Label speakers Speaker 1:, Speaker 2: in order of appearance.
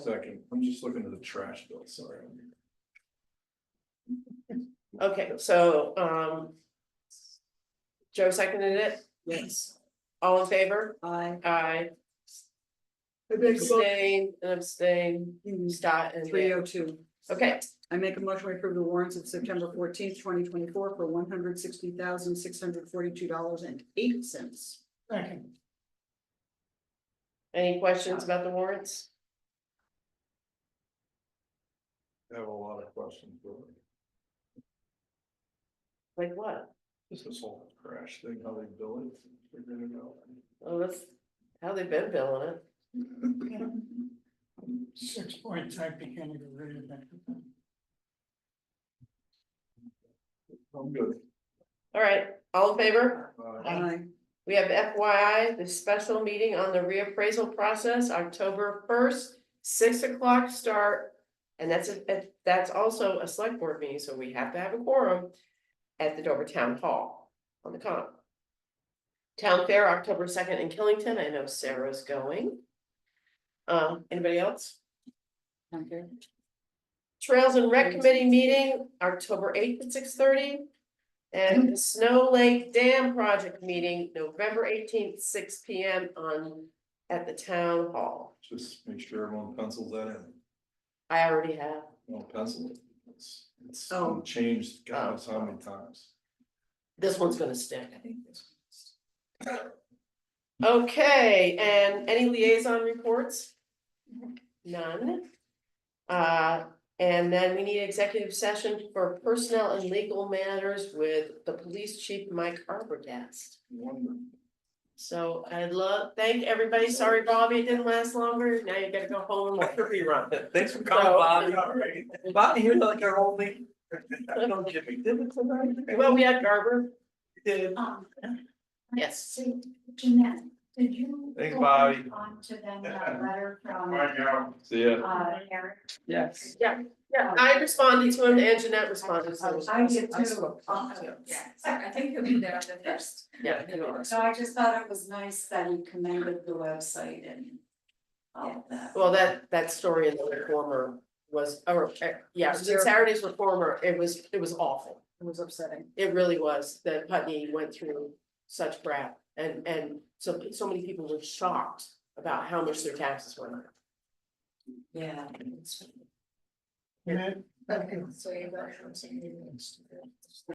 Speaker 1: Second, I'm just looking at the trash bill, sorry.
Speaker 2: Okay, so, um. Joe seconded it,
Speaker 3: Yes,
Speaker 2: all in favor?
Speaker 3: I.
Speaker 2: Aye.
Speaker 3: I make a motion,
Speaker 2: Abstain, and abstain, Scott and
Speaker 3: three
Speaker 2: Dan.
Speaker 3: oh two.
Speaker 2: Okay,
Speaker 3: I make a motion to approve the warrants of September fourteenth, twenty twenty-four for one hundred sixty thousand, six hundred forty-two dollars and eight cents.
Speaker 2: any questions about the warrants?
Speaker 1: I have a lot of questions, but
Speaker 2: Like what?
Speaker 1: just this whole trash thing, how they bill it, figuring it out.
Speaker 2: Oh, that's how they've been billing it.
Speaker 4: Six points, I began to get rid of that.
Speaker 1: I'm good.
Speaker 2: All right, all in favor?
Speaker 1: Uh,
Speaker 3: I,
Speaker 2: We have FYI, the special meeting on the reappraisal process, October first, six o'clock start. And that's, a- that's also a select board meeting, so we have to have a quorum at the Dover Town Hall on the con. Town Fair, October second in Killington. I know Sarah's going. Um, anybody else?
Speaker 3: okay,
Speaker 2: Trails and Rec Committee meeting, October eighth at six thirty. And the Snow Lake Dam Project meeting, November eighteenth, six P M on, at the town hall.
Speaker 1: Just make sure everyone pencils that in,
Speaker 2: I already have,
Speaker 1: don't pencil it. It's, it's
Speaker 3: Oh.
Speaker 1: been changed, God knows how many times.
Speaker 2: this one's gonna stick. Okay, and any liaison reports? None. Uh, and then we need executive session for personnel and legal matters with the police chief, Mike Arbogast.
Speaker 1: Wonderful.
Speaker 2: So I'd love, thank everybody, sorry Bobby, it didn't last longer, now you gotta go home and watch a rerun.
Speaker 5: Thanks for
Speaker 2: So-
Speaker 5: calling, Bobby. Bobby, you're like our only. Don't give me divots tonight.
Speaker 2: Well, we had Garber,
Speaker 5: Did.
Speaker 6: Um,
Speaker 2: yes,
Speaker 6: so Jeanette, did you?
Speaker 5: Thanks,
Speaker 6: forward
Speaker 5: Bobby.
Speaker 6: On to them, that letter from,
Speaker 1: See ya.
Speaker 6: uh, Eric.
Speaker 3: yes.
Speaker 2: yeah, I responded to him and Jeanette responded to him.
Speaker 6: I did
Speaker 3: I
Speaker 6: too.
Speaker 3: spoke.
Speaker 6: Uh, Yeah, so I think he'll be there on the first.
Speaker 2: Yeah.
Speaker 6: So I just thought it was nice that he commended the website and all of that.
Speaker 2: Well, that, that story in the reformer was, or, eh, yeah, the Saturday's reformer, it was, it was awful.
Speaker 3: It was upsetting.
Speaker 2: It really was, that Putney went through such crap and, and so, so many people were shocked about how much their taxes went up.
Speaker 6: Yeah.
Speaker 4: And then-
Speaker 6: Okay, so you're referencing.